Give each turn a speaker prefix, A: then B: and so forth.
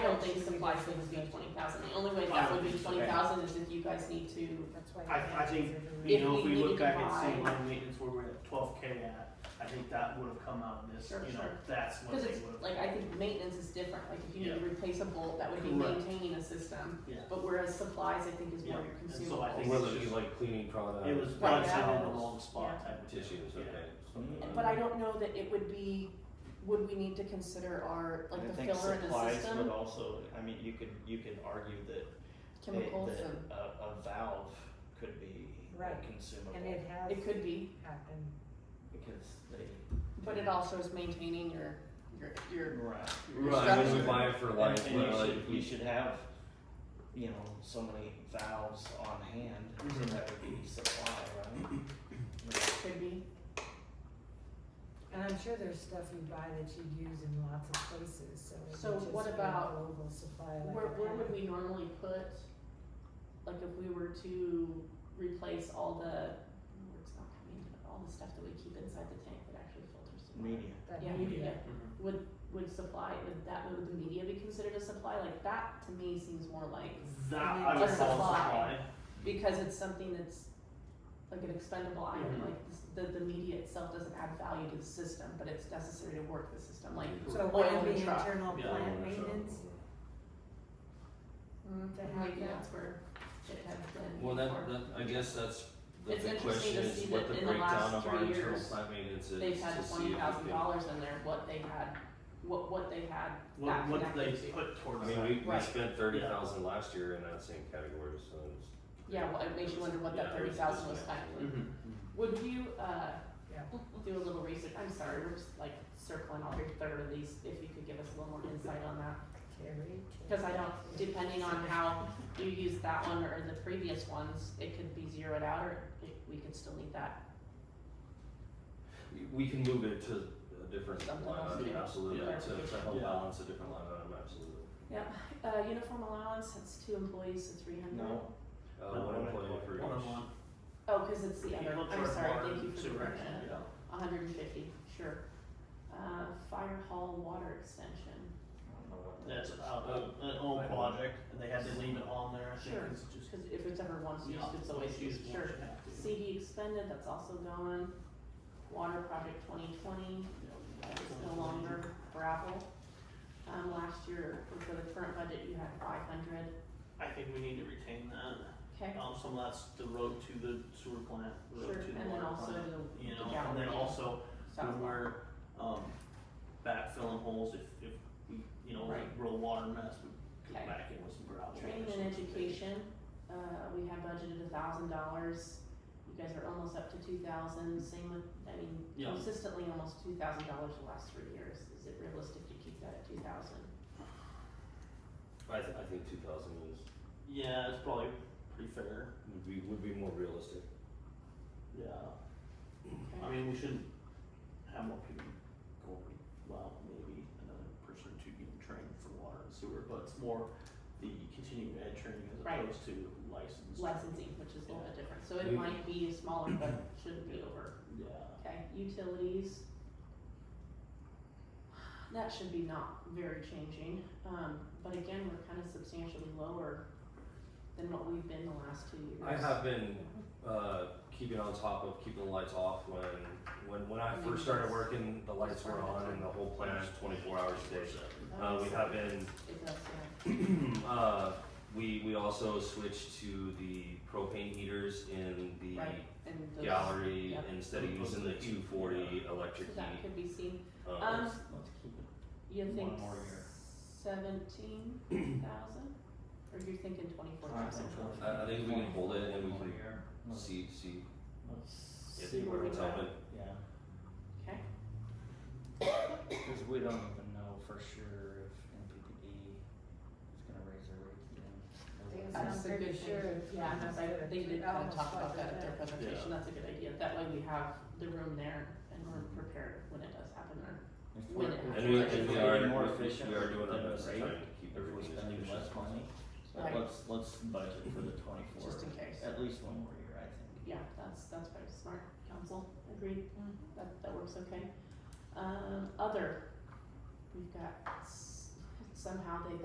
A: think supply should exceed twenty thousand, the only way that would be twenty thousand is if you guys need to,
B: That's why.
C: I-
B: the
C: I think
B: taxes are-
C: You
A: If
C: know, if
A: we
C: we
A: need to
C: look back and see
A: combine-
C: line maintenance where we're at twelve K at, I think that would have come out of this,
A: Sure,
C: you know,
A: sure.
C: that's what
A: cause
C: they
A: it's,
C: would have.
A: like, I think maintenance is different, like, if you need to replace a bolt, that would be
C: Correct.
A: maintaining a system,
C: Yeah.
A: but whereas supplies, I think, is more
C: Yeah,
A: your
C: and
A: consumables.
C: so I think
D: Whether
C: it's
D: it be
C: just-
D: like cleaning products.
C: It was
A: Right,
C: plugged
A: yeah.
C: in in the wrong spot
B: Yeah.
C: type of deal.
D: Tissues,
C: Yeah.
D: okay.
C: Mm-hmm.
A: And- But I don't know that it would be, would we need to consider our, like, the filler in the
E: I think supplies would
A: system,
E: also, I mean, you could, you could argue that, that,
A: chemicals
E: that
A: and,
E: a, a valve could be
B: Right.
E: consumable.
B: And it has
A: it could be,
B: happened.
E: Because
A: but it also is maintaining your, your,
E: they.
A: your,
E: Right.
D: Right, we would buy it for
E: And,
D: life,
E: and you
D: like,
E: should, you should have, you know, so many valves on hand,
C: Mhm.
A: Mm-hmm.
E: so that would be supply, right?
A: could be,
B: And I'm sure there's stuff you buy that you'd use in lots of places, so it would
A: So
B: just
A: what
B: be a
A: about-
B: global supply like
A: where, where
B: that.
A: would we normally put, like, if we were to replace all the, oh, it's not coming, but all the stuff that we keep inside the tank that actually filters the water.
E: Media.
B: That
A: Yeah,
B: need-
A: media,
C: Mhm.
A: would, would supply, would that, would the media be considered a supply, like, that to me seems more like,
C: That
B: And then
C: I would
B: just
C: call
A: supply.
C: supply.
A: because it's something that's like an expendable item,
B: Mm-hmm.
C: Mhm.
A: like this- the, the media itself doesn't add value to the system, but it's necessary to work the system, like,
B: So
A: Oil
B: one of
A: and
B: the
A: truck.
B: internal
C: Yeah,
B: plant maintenance, To have
A: maybe
B: that.
A: that's where it has been.
D: Well, that,
A: before.
D: that, I guess that's, the
A: It's
D: big
A: interesting
D: question
A: to
D: is
A: see
D: what
A: that
D: the
A: in the last
D: breakdown of
A: three
D: our internal
A: years,
D: plant maintenance is to see if we
A: They've
D: can.
A: had twenty thousand dollars in there, what they had, what, what they had that
C: What, what they
A: connected to.
C: put
D: I
C: towards that.
D: mean, we, we
A: Right.
D: spent thirty thousand last year in that same category, so it's.
A: Yeah, well, it makes you wonder what that
D: Yeah,
A: thirty thousand was
D: it's-
A: spent. for.
C: Mhm.
A: Would you, uh,
B: Yeah.
A: do a little research, I'm sorry, we're just like circling all every third of these, if you could give us a little more insight on that.
B: Terry.
A: Cause I don't, depending on how you use that one or the previous ones, it could be zeroed out or it- we could still need that.
D: We- We can move it to a different
A: Something
D: line
A: else,
D: item,
A: yeah.
D: absolutely,
A: Yeah.
D: to, to help
C: Yeah.
D: balance a different line item, absolutely.
A: Yep, uh, uniform allowance, that's two employees, so three hundred.
E: No,
D: Uh, one employee for
C: One
D: each.
C: on one.
A: Oh, cause it's the
C: You
A: other,
C: look
A: I'm
C: towards
A: sorry,
C: water
A: thank you for
C: supervision,
A: correcting that.
C: yeah.
A: hundred and fifty, sure. Uh, fire hall water extension,
E: I don't know what that
C: That's
E: is.
C: out of an old project, and they had to leave it on there, I think
A: Sure.
C: it's just.
A: cause if it's ever once used,
C: yeah,
A: it's always used,
C: used
A: sure.
C: once you have to.
A: CD expended, that's also gone. Water project twenty twenty,
C: Yeah.
A: that is no longer gravel. Um, last year, or for the current budget, you had five hundred,
C: I think we need to retain that,
A: okay?
C: um, some of that's the road to the sewer plant,
A: Sure,
C: road to
A: and
C: the
A: then
C: water
A: also
C: plant,
A: the,
C: you
A: the
C: know, and
A: gallery,
C: then also
A: south
C: when we're, um, backfilling holes, if, if we, you know,
A: Right.
C: real water mess, we
A: Okay.
C: go back in with some gravel. or
A: Training
C: something.
A: and education, uh, we had budgeted a thousand dollars, you guys are almost up to two thousand, same with, I mean,
C: Yeah.
A: consistently almost two thousand dollars the last three years, is it realistic to keep that at two thousand?
D: I th- I think two thousand is,
C: Yeah, it's probably pretty fair,
D: would be, would be more realistic.
C: yeah, I
A: Okay,
C: mean, we shouldn't have more people going, well, maybe another person or two getting trained for water and sewer, but it's more the continuing ed training as
A: Right.
C: opposed to licensed.
A: Licensing, which is a little bit different, so it
D: We-
A: might be smaller, but shouldn't be over.
C: Yeah,
A: Okay, utilities. That should be not very changing, um, but again, we're kind of substantially lower than what we've been the last two years.
D: I have been uh, keeping on top of keeping the lights off when when when I first started working, the lights were on and the whole plant was 24 hours a day. Uh, we have been
A: It does, yeah.
D: uh, we we also switched to the propane heaters in the
A: Right, and those,
D: gallery
A: yeah.
D: instead of using the 240
A: so
D: electric
A: that
D: heat.
A: could be seen,
D: Um,
A: um,
E: Let's keep it.
A: you
E: One
A: think
E: more year.
A: seventeen thousand? Or you're thinking twenty-four
E: I
A: thousand?
E: think so.
D: I- I think we can hold it and we
E: One
D: can-
E: year. Let's-
D: see see
E: Let's
D: if
E: see
D: you
A: where
D: want
A: we're
D: to
E: at.
D: tell me.
E: Yeah.
A: Okay,
E: Because we don't even know for sure if MPPD is gonna raise their rates again.
B: Yes.
A: that's a
B: I'm
A: good
B: pretty sure Oh,
A: thing, yeah,
B: that's
A: I
B: good.
A: they did
B: I
A: kind of
B: almost
A: talk about
B: thought
A: that at their
B: that.
A: presentation, that's a good idea, that way we have the room there and we're prepared when it does happen or
E: If
A: When it
E: we're- if
A: happens.
D: And
E: we're
D: we,
E: getting
D: and we
E: more
D: are we-
E: efficient
D: we are doing
E: with the
D: our best to
E: rate,
D: try and keep
E: If we're
D: everything as
E: spending
D: efficient as
E: less
D: possible.
E: money, but
A: Right.
E: let's, let's budget for the twenty-four,
A: just in case.
E: at least one more year, I think.
A: Yeah, that's, that's very smart, council, agreed,
B: Hmm.
A: that, that works okay. Um, other, we've got, s- somehow they